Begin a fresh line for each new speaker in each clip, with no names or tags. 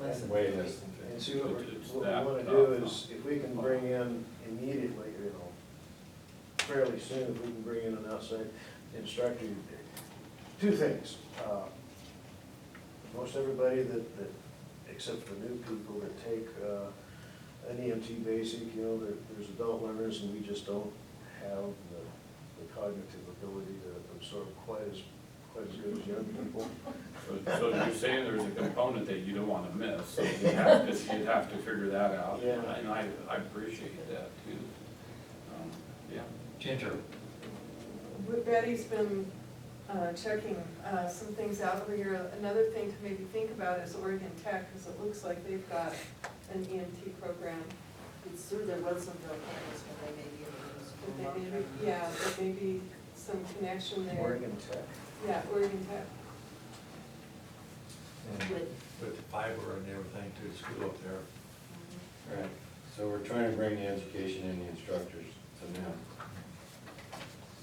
less than
Way
fifty.
less than fifty.
And see, what
It- it's
we're-
that
what we wanna
top,
do is,
top.
if we can bring in immediately, you know, fairly soon, if we can bring in an outside instructor, two things. Uh, Most everybody that, that, except for new people that take, uh, an EMT basic, you know, there, there's adult learners, and we just don't have the the cognitive ability to absorb quite as, quite as good as young people.
So so you're saying there's a component that you don't wanna miss, so you have to, you'd have to figure that out.
Yeah.
And I, I appreciate that too. Um, Yeah.
Ginger,
Betty's been uh, checking uh, some things out over here. Another thing to maybe think about is Oregon Tech, because it looks like they've got an EMT program.
It's through their Wilsonville campus, but they may be in the
But
school.
they maybe, yeah, but maybe some connection there.
Oregon Tech.
Yeah, Oregon Tech.
With-
with the fiber and everything to the school up there.
Mm-hmm.
Right, so we're trying to bring the education and the instructors to now.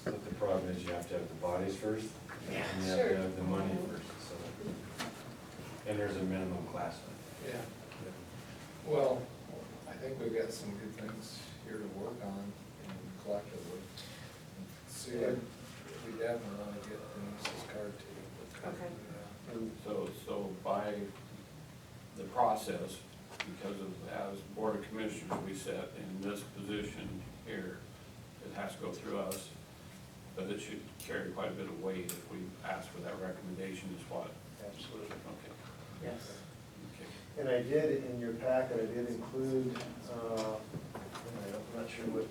But the problem is you have to have the bodies first, and you have
Sure.
to have the money first, so. And there's a minimum class.
yeah. Well, I think we've got some good things here to work on and collectively. See, we we definitely want to get Denise's card to you.
Okay.
And
So, so by the process, because of, as Board of Commissioners, we set in this position here, it has to go through us, but it should carry quite a bit of weight if we ask for that recommendation is what,
Absolutely.
okay,
Yes.
okay.
And I did, in your packet, I did include, uh, I'm not sure what,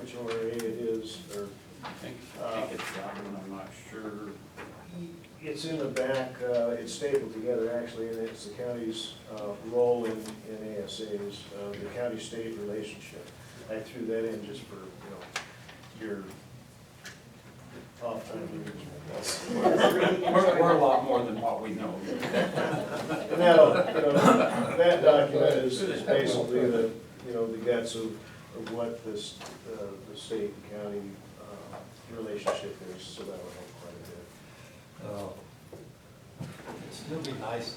which ORA it is, or,
I think, I think it's that one, I'm not sure.
it's in the back, uh, it's stapled together, actually, and it's the county's uh, role in, in ASAs, uh, the county-state relationship. I threw that in just for, you know, your off time.
We're, we're a lot more than what we know.
And that'll, you know, that document is is basically the, you know, the guts of, of what this, uh, the state and county uh, relationship is, so that'll help quite a bit.
Uh, It'd still be nice,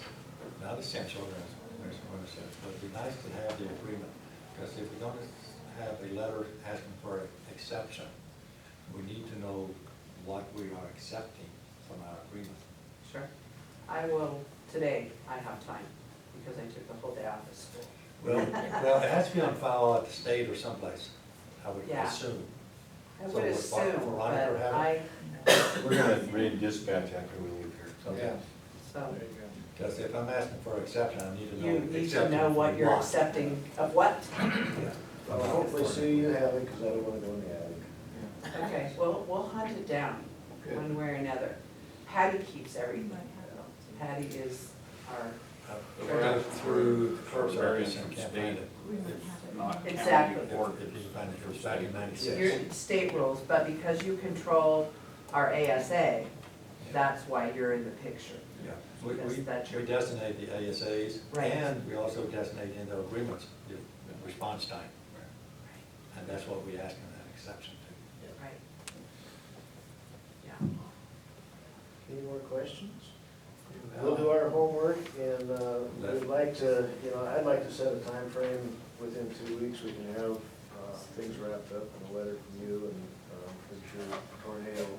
not essential, as Ms. Warner said, but it'd be nice to have the agreement. Because if we're gonna have a letter asking for an exception, we need to know what we are accepting from our agreement.
Sure. I will, today, I have time, because I took the whole day off of school.
Well, well, it has to be on file at the state or someplace, I would
Yeah.
assume.
I
So
would
we're-
assume,
we're
but
on it or haven't?
I,
We're gonna read dispatch after we leave here.
Yeah,
Okay.
so,
there you
Because if I'm asking for an exception, I need to know.
you need to
exactly
know what
we
you're
want.
accepting of what?
Yeah.
Well, hopefully, Sue, you have it, because I don't want to go in the attic.
Okay, well, we'll hunt it down,
Good.
one way or another. Patty keeps everything. Patty is our,
I've read through the first areas and can't find it.
It's not county
Exactly.
or
Or if you find it, it was back in
your
ninety-six.
state rules, but because you control our ASA, that's why you're in the picture.
Yeah. We, we,
Yes, that's your-
we designate the ASAs.
Right.
And we also designate in the agreements, the the response time. And that's what we ask in that exception to.
Right. Yeah.
Any more questions? We'll do our homework, and uh, we'd like to, you know, I'd like to set a time frame. within two weeks, we can have uh, things wrapped up, and a letter from you, and um, I'm sure Cornell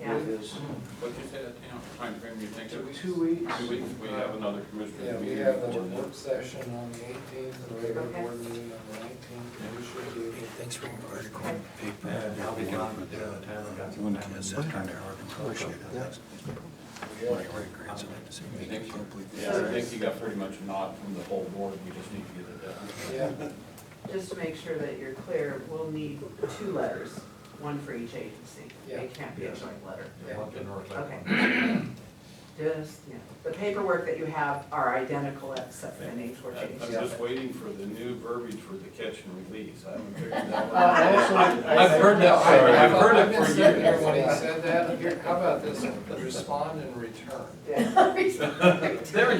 Yeah.
with his
What'd you say, that, you know, timeframe you think
Two
of?
weeks. Two weeks.
Two weeks, we have another commissioner
Yeah, we
meeting.
have a
before that.
work session on the eighteenth and a regular
Okay.
board meeting on the nineteenth. We should be able to
Thanks for your article.
And I'll be gone with the town, I've got
You want to
some family
miss
stuff
that
down
kind of
there.
article? Appreciate it.
Yeah.
My great grandson had the same
I
thing.
think so.
Completely.
Yeah, I think you got pretty much a nod from the whole board, we just need to get it done.
Yeah.
Just to make sure that you're clear, we'll need two letters, one for each agency.
Yeah.
It can't be a joint letter.
Yeah, I'll get North Lake.
Okay. Just, yeah, the paperwork that you have are identical except for the names were
I'm
changed.
I'm just waiting for the new verbiage for the catch and release, I haven't figured that one
I
out.
also- I-
I've heard that-
I- Sorry. I've
heard it
I've been
for
sitting here
years.
When he said that, here, how about this one, respond and return.
Yeah.
There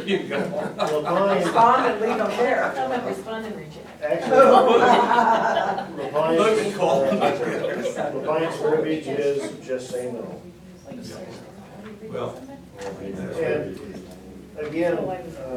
you go.
Well, Brian,
Respond and leave them there.
about respond and reject?
actually,
Look at Cole.
Levine's, Levine's verbiage uh, is just say no.
Like, seriously, how do you read
Well,
something?
We'll leave that.
And again, uh,